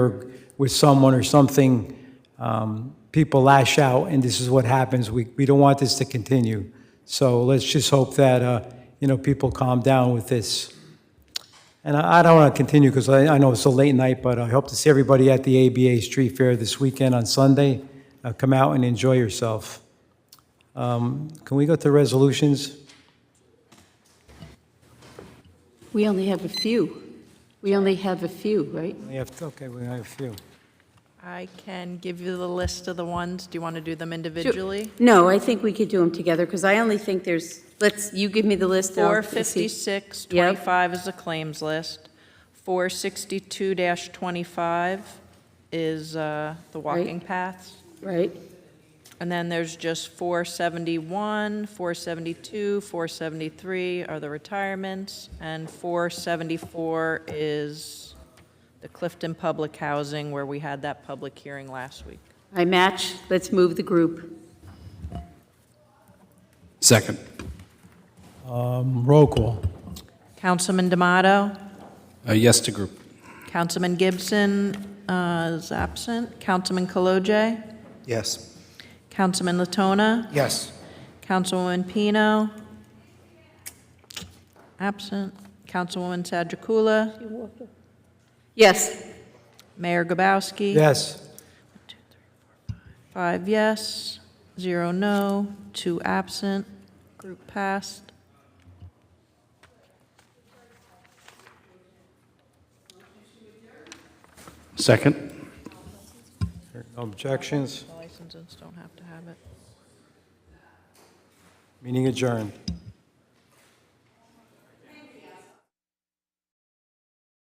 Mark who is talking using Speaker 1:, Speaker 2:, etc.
Speaker 1: with someone or something, um, people lash out, and this is what happens. We, we don't want this to continue. So let's just hope that, uh, you know, people calm down with this. And I I don't want to continue because I I know it's a late night, but I hope to see everybody at the ABA Street Fair this weekend on Sunday. Uh, Come out and enjoy yourself. Um, Can we go to resolutions?
Speaker 2: We only have a few. We only have a few, right?
Speaker 1: We have, okay, we have a few.
Speaker 3: I can give you the list of the ones. Do you want to do them individually?
Speaker 2: No, I think we could do them together, because I only think there's, let's, you give me the list. and I'll-
Speaker 3: 456,
Speaker 2: Yep.
Speaker 3: 25 is the claims list. 462-25 is uh, the walking paths.
Speaker 2: Right,
Speaker 3: And then there's just 471, 472, 473 are the retirements, and 474 is the Clifton Public Housing, where we had that public hearing last week.
Speaker 2: I match, let's move the group.
Speaker 4: Second.
Speaker 1: Um, Roll call.
Speaker 3: Councilman D'Amato?
Speaker 4: Uh, Yes to group.
Speaker 3: Councilman Gibson uh, is absent. Councilman Kalojay.
Speaker 4: Yes.
Speaker 3: Councilman Latona.
Speaker 4: Yes.
Speaker 3: Councilwoman Pino. Absent. Councilwoman Sadrakula.
Speaker 2: Yes,
Speaker 3: Mayor Gabowski.
Speaker 1: Yes,
Speaker 3: Five yes, zero no, two absent. Group passed.
Speaker 4: Second.
Speaker 1: no objections,
Speaker 3: Licenses don't have to have it.
Speaker 1: meeting adjourned.